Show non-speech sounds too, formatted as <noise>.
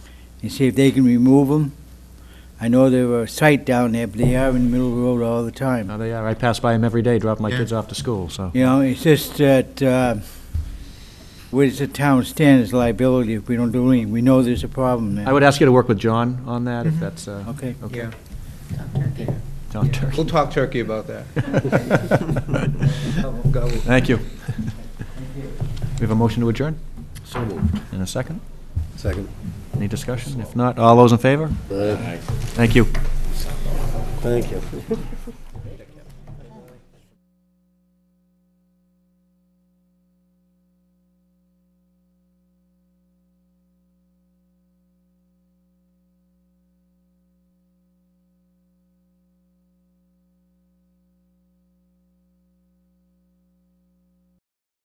and see if they can remove them. I know there were a site down there, but they are in the middle of the road all the time. No, they are. I pass by them every day, dropping my Yeah. kids off to school, so. You know, it's just that, uh, where does the town stand as liability if we don't do anything? We know there's a problem there. I would ask you to work with John on that, if that's, uh, Okay. okay. Mm-hmm. Yeah, John <laughs> Turk. we'll talk turkey about that. Oh, Thank you. We have a motion to adjourn? So moved. In a second? Second. Any discussion? If not, all those in favor? Thank you. Thank you.